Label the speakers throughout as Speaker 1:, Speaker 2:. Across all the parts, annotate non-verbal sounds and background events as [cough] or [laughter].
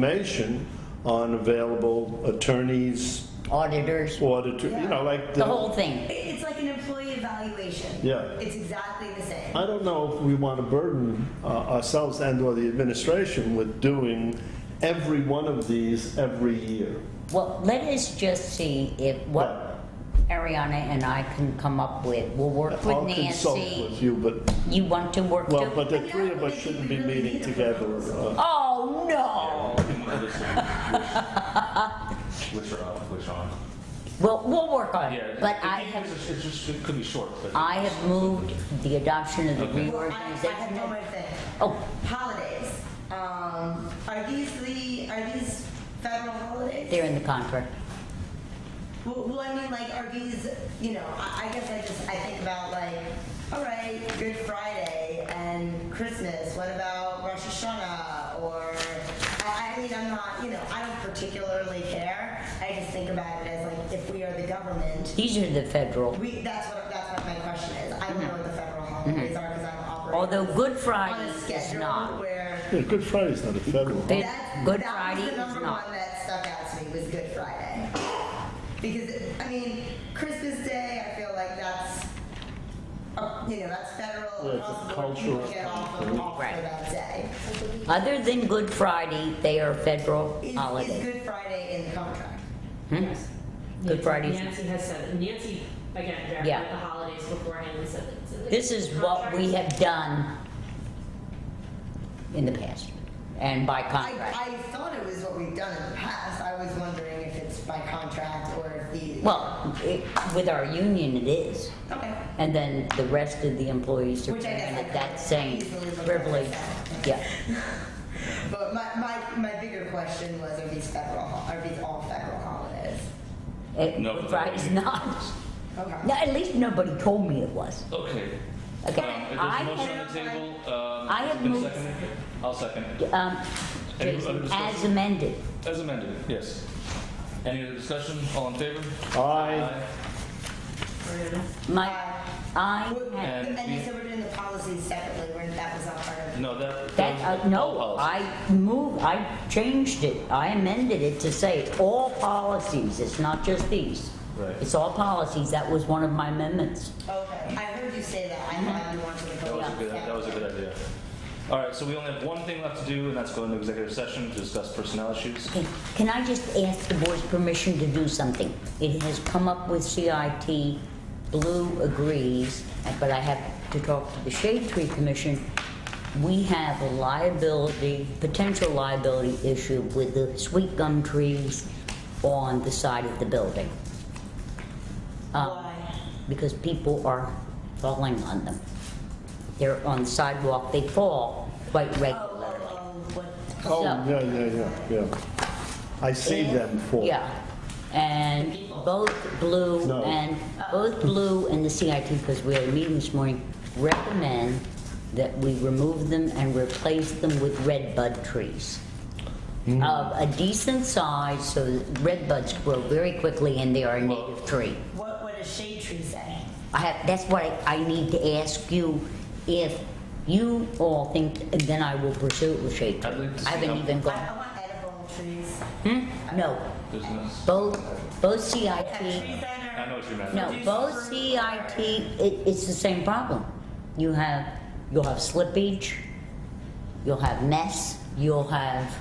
Speaker 1: information on available attorneys,
Speaker 2: auditors.
Speaker 1: auditor, you know, like.
Speaker 2: The whole thing.
Speaker 3: It- It's like an employee evaluation.
Speaker 1: Yeah.
Speaker 3: It's exactly the same.
Speaker 1: I don't know if we want to burden uh, ourselves and/or the administration with doing every one of these every year.
Speaker 2: Well, let us just see if what Ariana and I can come up with. We'll work with
Speaker 1: I'll consult
Speaker 2: Nancy.
Speaker 1: with you, but,
Speaker 2: You want to work
Speaker 1: well,
Speaker 2: too?
Speaker 1: but the three of us shouldn't be meeting together. uh,
Speaker 2: Oh, no.
Speaker 4: Which are up, which aren't.
Speaker 2: Well, we'll work on
Speaker 4: Yeah.
Speaker 2: it. But
Speaker 4: it-
Speaker 2: I
Speaker 4: it-
Speaker 2: have,
Speaker 4: It's it's just, it could be short, but.
Speaker 2: I have moved the adoption of the
Speaker 4: Okay.
Speaker 3: Well, I, I have one
Speaker 2: reorganization.
Speaker 3: more thing.
Speaker 2: Oh,
Speaker 3: Holidays. Um, are these the, are these federal holidays?
Speaker 2: they're in the contract.
Speaker 3: Well, well, I mean, like, are these, you know, I, I guess I just, I think about like, all right, Good Friday and Christmas, what about Rosh Hashanah? Or, I, I mean, I'm not, you know, I don't particularly care. I just think about it as like, if we are the government,
Speaker 2: These are the federal.
Speaker 3: we, that's what, that's what my question is. I don't know what the federal holidays are because I'm operating
Speaker 2: Mm-hmm. Although Good
Speaker 3: on
Speaker 2: Friday
Speaker 3: a
Speaker 2: is
Speaker 3: schedule
Speaker 2: not.
Speaker 3: where
Speaker 1: yeah, Good Friday's not a federal.
Speaker 2: They-
Speaker 3: that,
Speaker 2: Good
Speaker 3: that
Speaker 2: Friday
Speaker 3: was
Speaker 2: is
Speaker 3: the number
Speaker 2: not.
Speaker 3: one that stuck out to me was Good Friday. Because I mean, Christmas Day, I feel like that's uh, you know that's federal.
Speaker 1: Yeah, it's a
Speaker 3: across the board,
Speaker 1: cultural
Speaker 3: people Get off,
Speaker 1: thing.
Speaker 3: of, off
Speaker 2: Right.
Speaker 3: for that day.
Speaker 2: Other than Good Friday, they are federal
Speaker 3: Is, is
Speaker 2: holidays.
Speaker 3: Good Friday in the contract?
Speaker 2: Hmm?
Speaker 5: Yes.
Speaker 2: Good Fridays.
Speaker 5: Nancy has said, it. Nancy, again,
Speaker 2: Yeah.
Speaker 5: verified the holidays beforehand and said that. it's in the
Speaker 2: This is what we
Speaker 5: contract.
Speaker 2: have done in the past and by
Speaker 3: I,
Speaker 2: contract.
Speaker 3: I thought it was what we've done in the past. I was wondering if it's by contract or if the
Speaker 2: Well, it- with our union, it is.
Speaker 3: okay.
Speaker 2: And then the rest of the employees are
Speaker 3: Which I guess I
Speaker 2: granted
Speaker 3: could
Speaker 2: that same
Speaker 3: easily look up
Speaker 2: privilege.
Speaker 3: myself.
Speaker 2: Yeah.
Speaker 3: But my, my, my bigger question was are these federal ho- are these all federal holidays?
Speaker 2: It-
Speaker 4: No,
Speaker 2: Good
Speaker 4: but-
Speaker 2: Friday's not.
Speaker 3: Okay.
Speaker 2: No, At least nobody told me it was.
Speaker 4: Okay.
Speaker 2: Okay,
Speaker 4: Um, There's
Speaker 2: I
Speaker 4: a motion on
Speaker 3: have-
Speaker 4: the table. um,
Speaker 2: I have
Speaker 4: it's been
Speaker 2: moved-
Speaker 4: seconded. I'll second.
Speaker 2: Um,
Speaker 4: Any other
Speaker 2: Jason,
Speaker 4: discussion?
Speaker 2: As amended.
Speaker 4: As amended, yes. Any other discussion? All in favor?
Speaker 1: I,
Speaker 5: Ariana?
Speaker 2: My, I,
Speaker 3: Well,
Speaker 2: had-
Speaker 4: And
Speaker 3: Uh, And you
Speaker 4: we-
Speaker 3: said we're doing the policies separately, where that was not part of.
Speaker 4: No, that.
Speaker 2: that, uh,
Speaker 4: all
Speaker 2: no,
Speaker 4: policy.
Speaker 2: I moved, I changed it, I amended it to say all policies, it's not just these.
Speaker 4: Right.
Speaker 2: It's all policies, that was one of my amendments.
Speaker 3: Okay, I heard you say that, I thought you wanted to
Speaker 4: That
Speaker 3: go.
Speaker 4: was a good, that was a good idea. All right, so we only have one thing left to do, and that's go into executive session to discuss personnel issues.
Speaker 2: Okay, Can I just ask the board's permission to do something? It has come up with CIT, Blue agrees, but I have to talk to the Shade Tree Commission. We have a liability, potential liability issue with the sweet gum trees on the side of the building. Um,
Speaker 3: Why?
Speaker 2: Because people are falling on them. They're on the sidewalk, they fall quite
Speaker 3: Oh,
Speaker 2: regularly.
Speaker 3: oh, oh, what?
Speaker 1: oh,
Speaker 2: So-
Speaker 1: yeah, yeah, yeah, yeah. I see them for.
Speaker 2: Yeah, and both Blue
Speaker 1: No.
Speaker 2: and, both Blue and the CIT, because we had a meeting this morning, recommend that we remove them and replace them with red bud trees
Speaker 1: Mm-hmm.
Speaker 2: of a decent size, so that red buds grow very quickly and they are a native tree.
Speaker 3: What would a shade tree say?
Speaker 2: I have, that's what I, I need to ask you, if you all think, and then I will pursue it with shade
Speaker 4: I'd
Speaker 2: tree.
Speaker 4: like to
Speaker 2: I
Speaker 4: see
Speaker 2: haven't
Speaker 4: how-
Speaker 2: even
Speaker 3: I,
Speaker 2: gone,
Speaker 3: I want edible trees.
Speaker 2: hmm, no,
Speaker 4: There's no-
Speaker 2: both, both CIT.
Speaker 3: Have trees that
Speaker 4: I know
Speaker 3: are,
Speaker 4: what you meant.
Speaker 2: No, both CIT, it, it's the same problem. You have, you'll have slippage, you'll have mess, you'll have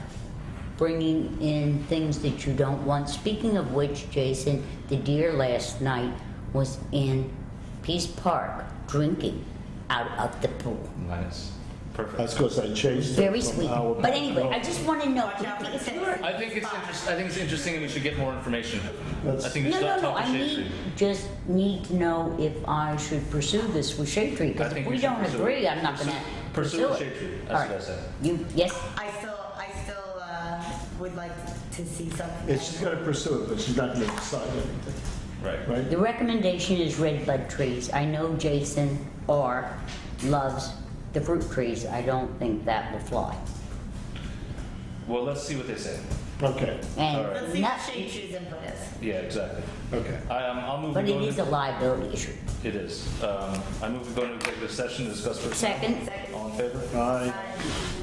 Speaker 2: bringing in things that you don't want. Speaking of which, Jason, the deer last night was in Peace Park drinking out of the pool.
Speaker 4: Minus. Oh, Perfect.
Speaker 1: That's because I changed it.
Speaker 2: Very
Speaker 1: from
Speaker 2: sweet.
Speaker 1: our-
Speaker 2: But anyway, I just wanna know, [laughs] if you're,
Speaker 4: I think it's interesting. I think it's interesting, and we should get more information. I think we
Speaker 2: no,
Speaker 4: should
Speaker 2: no,
Speaker 4: not
Speaker 2: no,
Speaker 4: talk
Speaker 2: I
Speaker 4: to Shade Tree.
Speaker 2: need, just need to know if I should pursue this with Shade Tree,
Speaker 4: I
Speaker 2: because
Speaker 4: think
Speaker 2: if we
Speaker 4: should
Speaker 2: don't
Speaker 4: pursue it.
Speaker 2: agree, I'm not
Speaker 4: Pursue-
Speaker 2: gonna pursue
Speaker 4: pursue the
Speaker 2: it.
Speaker 4: Shade Tree. That's
Speaker 2: All right.
Speaker 4: what I said.
Speaker 2: You, yes,
Speaker 3: I still, I still, uh, would like to see something.
Speaker 1: Yeah, she's gonna pursue it, but she's not gonna decide anything,
Speaker 4: Right.
Speaker 1: right?
Speaker 2: the recommendation is red bud trees. I know Jason R. loves the fruit trees, I don't think that will fly.
Speaker 4: Well, let's see what they say.
Speaker 1: Okay,
Speaker 4: All right.
Speaker 3: Let's
Speaker 2: And
Speaker 3: see what
Speaker 2: not,
Speaker 3: shade trees input is.
Speaker 4: Yeah, exactly.
Speaker 1: okay.
Speaker 4: I, um, I'll move.
Speaker 2: but
Speaker 4: we
Speaker 2: it
Speaker 4: go
Speaker 2: is a
Speaker 4: into-
Speaker 2: liability issue.
Speaker 4: It is. Um, I move we go into executive session to discuss personnel.
Speaker 2: Second,
Speaker 4: All in favor?
Speaker 1: I,
Speaker 3: Uh,